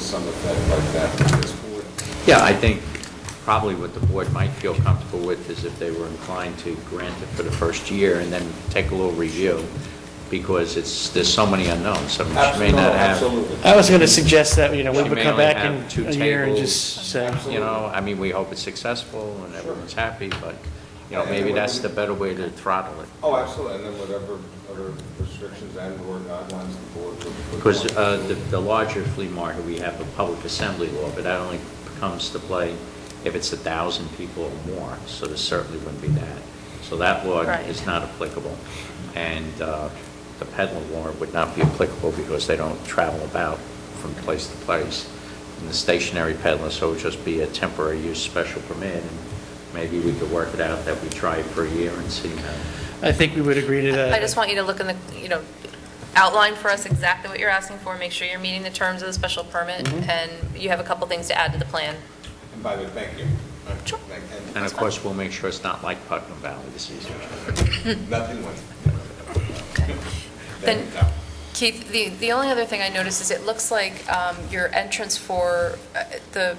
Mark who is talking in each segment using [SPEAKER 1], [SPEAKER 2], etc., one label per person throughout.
[SPEAKER 1] some effect like that from this board?
[SPEAKER 2] Yeah, I think probably what the board might feel comfortable with is if they were inclined to grant it for the first year and then take a little review, because it's, there's so many unknowns, some which may not have.
[SPEAKER 1] Absolutely.
[SPEAKER 3] I was going to suggest that, you know, we
[SPEAKER 2] She
[SPEAKER 3] would
[SPEAKER 2] may
[SPEAKER 3] come
[SPEAKER 2] only
[SPEAKER 3] back
[SPEAKER 2] have
[SPEAKER 3] in
[SPEAKER 2] two
[SPEAKER 3] a year and
[SPEAKER 2] tables.
[SPEAKER 3] just say,
[SPEAKER 2] You know, I mean, we hope it's successful and everyone's happy, but, you know, maybe that's the better way to throttle it.
[SPEAKER 1] Oh, absolutely, and then whatever other restrictions and or guidelines the board would. would
[SPEAKER 2] Because
[SPEAKER 1] want.
[SPEAKER 2] uh, the the larger flea market, we have a public assembly law, but that only comes to play if it's a 1,000 people or more, so there certainly wouldn't be that. So that law
[SPEAKER 4] Right.
[SPEAKER 2] is not applicable. And uh, the peddler law would not be applicable because they don't travel about from place to place. And the stationary peddler, so it would just be a temporary use special permit, and maybe we could work it out that we try it for a year and see how.
[SPEAKER 3] I think we would agree to that.
[SPEAKER 4] I just want you to look in the, you know, outline for us exactly what you're asking for, make sure you're meeting the terms of the special permit,
[SPEAKER 3] Mhm.
[SPEAKER 4] and you have a couple things to add to the plan.
[SPEAKER 1] And by the, way, thank you.
[SPEAKER 4] Sure.
[SPEAKER 1] Thank-
[SPEAKER 2] And of course, we'll make sure it's not like Putnam Valley this season.
[SPEAKER 1] Nothing went.
[SPEAKER 4] Okay. Then-
[SPEAKER 1] No.
[SPEAKER 4] Keith, the, the only other thing I noticed is it looks like um, your entrance for uh, the,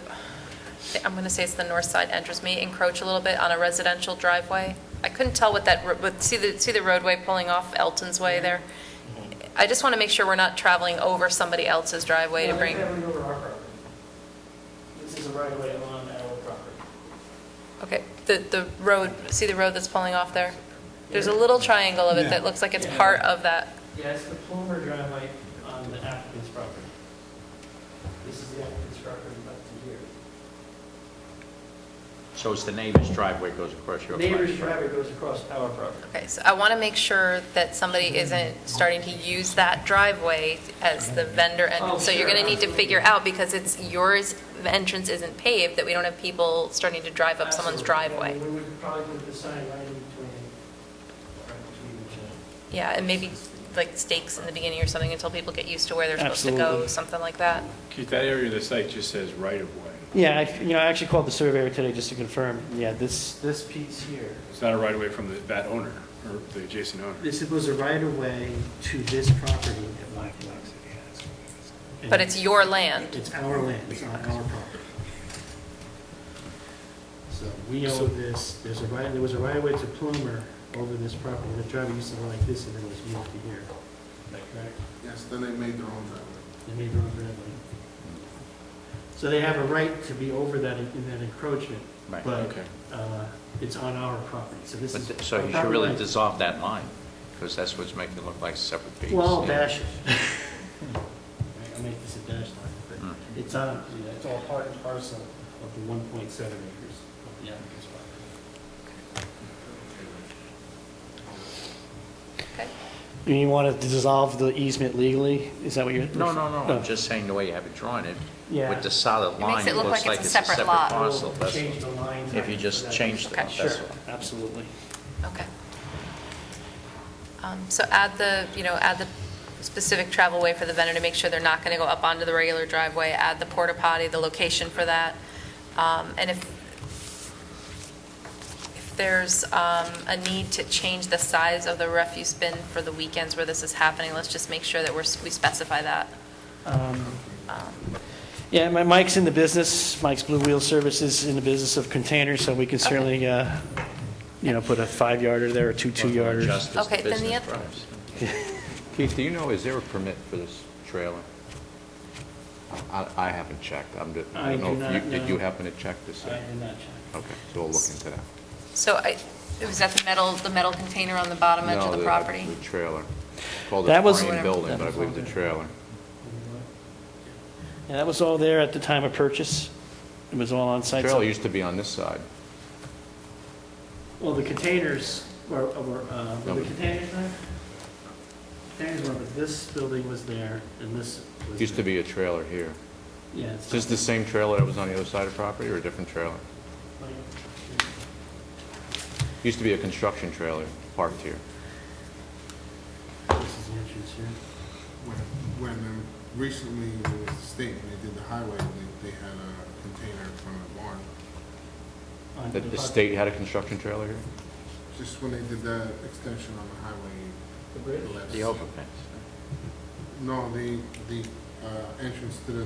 [SPEAKER 4] I'm going to say it's the north side entrance, may encroach a little bit on a residential driveway. I couldn't tell what that, ro- but see the, see the roadway pulling off Elton's Way there? I just want to make sure we're not traveling over somebody else's driveway to
[SPEAKER 5] No,
[SPEAKER 4] bring,
[SPEAKER 5] they're traveling over our property. This is a right of way on our property.
[SPEAKER 4] okay, the, the road, see the road that's pulling off there? There's a little triangle of it that looks like it's part of that.
[SPEAKER 5] Yeah, it's the Plummer driveway on the applicant's property. This is the applicant's property back to here.
[SPEAKER 2] So it's the neighbor's driveway goes across your property?
[SPEAKER 5] Neighbor's driveway goes across our property.
[SPEAKER 4] Okay, so I want to make sure that somebody isn't starting to use that driveway as the vendor
[SPEAKER 5] Oh,
[SPEAKER 4] entrance. So you're
[SPEAKER 5] sure,
[SPEAKER 4] going to need to figure out, because it's yours, the entrance isn't paved, that we don't have people starting to drive up someone's
[SPEAKER 5] Absolutely.
[SPEAKER 4] driveway.
[SPEAKER 5] We would probably put the sign right in between, right between each other.
[SPEAKER 4] Yeah, and maybe like stakes in the beginning or something until people get used to where they're supposed to go,
[SPEAKER 3] Absolutely.
[SPEAKER 4] something like that.
[SPEAKER 6] Keith, that area of the site just says right-of-way.
[SPEAKER 3] Yeah, I, you know, I actually called the surveyor today just to confirm, yeah, this, this piece here,
[SPEAKER 6] It's not a right-of-way from the- that owner, or the adjacent owner.
[SPEAKER 5] This was a right of way to this property at my
[SPEAKER 4] But it's your land.
[SPEAKER 5] It's our land, it's not our property. So we own this, there's a right, there was a right of way to Plumer over this property, the driveway used to run like this, and then it was moved to here. Is that correct?
[SPEAKER 7] Yes, then they made their own driveway.
[SPEAKER 5] They made their own driveway. So they have a right to be over that, in in that encroachment,
[SPEAKER 2] Right.
[SPEAKER 5] but
[SPEAKER 6] Okay.
[SPEAKER 5] uh, it's on our property, so this
[SPEAKER 2] But th-
[SPEAKER 5] is.
[SPEAKER 2] So
[SPEAKER 5] our
[SPEAKER 2] you should
[SPEAKER 5] property
[SPEAKER 2] really
[SPEAKER 5] right.
[SPEAKER 2] dissolve that line, because that's what's making it look like separate pieces.
[SPEAKER 5] Well, I'll dash it. I'll make this a dash
[SPEAKER 2] Hmm.
[SPEAKER 5] line, but it's on, yeah, it's all part and parcel of the 1.7 acres of the applicant's property.
[SPEAKER 4] Okay?
[SPEAKER 3] you want to dissolve the easement legally? Is that what you're?
[SPEAKER 2] No, no, no,
[SPEAKER 3] Oh.
[SPEAKER 2] I'm just saying the way you have it drawn, it,
[SPEAKER 3] Yeah.
[SPEAKER 2] with the solid
[SPEAKER 4] It
[SPEAKER 2] line,
[SPEAKER 4] makes
[SPEAKER 2] it looks like it's a separate
[SPEAKER 4] lot.
[SPEAKER 2] parcel.
[SPEAKER 5] We'll
[SPEAKER 2] that's
[SPEAKER 5] Change
[SPEAKER 2] all.
[SPEAKER 5] the line.
[SPEAKER 2] If you
[SPEAKER 5] type so
[SPEAKER 2] just
[SPEAKER 5] that
[SPEAKER 2] change
[SPEAKER 5] it's-
[SPEAKER 2] that,
[SPEAKER 4] Okay.
[SPEAKER 2] that's
[SPEAKER 5] Sure,
[SPEAKER 2] all.
[SPEAKER 3] Absolutely.
[SPEAKER 4] Okay. Um, So add the, you know, add the specific travel way for the vendor to make sure they're not going to go up onto the regular driveway, add the porta potty, the location for that. Um, And if, if there's um, a need to change the size of the refuse bin for the weekends where this is happening, let's just make sure that we're, we specify that.
[SPEAKER 3] Um, Yeah, my, Mike's in the business, Mike's Blue Wheel Service is in the business of containers, so we can certainly, uh, you know, put a five yarder there or two two yarders.
[SPEAKER 2] Just as
[SPEAKER 4] Okay, then the
[SPEAKER 2] business
[SPEAKER 4] oth-
[SPEAKER 2] drives. Keith, do you know, is there a permit for this trailer?
[SPEAKER 8] I, I haven't checked. I'm, ju-
[SPEAKER 5] I
[SPEAKER 8] I don't
[SPEAKER 5] do
[SPEAKER 8] know if
[SPEAKER 5] not
[SPEAKER 8] you, did you
[SPEAKER 5] know.
[SPEAKER 8] happen to check this?
[SPEAKER 5] I did not check.
[SPEAKER 8] Okay, so we'll look into that.
[SPEAKER 4] So I, was that the metal, the metal container on the bottom edge
[SPEAKER 8] No,
[SPEAKER 4] of the
[SPEAKER 8] the-
[SPEAKER 4] property?
[SPEAKER 8] The trailer. Called a
[SPEAKER 3] That was-
[SPEAKER 8] frame building,
[SPEAKER 3] That
[SPEAKER 8] but I
[SPEAKER 3] was
[SPEAKER 8] believe
[SPEAKER 3] all
[SPEAKER 8] the
[SPEAKER 3] there.
[SPEAKER 8] trailer.
[SPEAKER 3] And that was all there at the time of purchase. It was all on site. so-
[SPEAKER 8] Trailer used to be on this side.
[SPEAKER 5] Well, the containers were, were, uh, were the
[SPEAKER 8] No.
[SPEAKER 5] containers there? Containers were, but this building was there, and this was.
[SPEAKER 8] Used to
[SPEAKER 5] there.
[SPEAKER 8] be a trailer here.
[SPEAKER 5] Yeah. it's
[SPEAKER 8] Is this the same trailer that was on the other side of property or a different trailer?
[SPEAKER 5] not-
[SPEAKER 8] Used to be a construction trailer parked here.
[SPEAKER 5] This is the entrance here.
[SPEAKER 7] When, when um, recently it was the state, when they did the highway, they, they had a container in front of the barn.
[SPEAKER 5] On
[SPEAKER 8] The, the state had a construction trailer here?
[SPEAKER 7] Just when they did the extension on the highway.
[SPEAKER 5] The bridge?
[SPEAKER 7] left
[SPEAKER 2] The
[SPEAKER 7] side.
[SPEAKER 2] overpass.
[SPEAKER 7] No, the, the, uh, entrance to the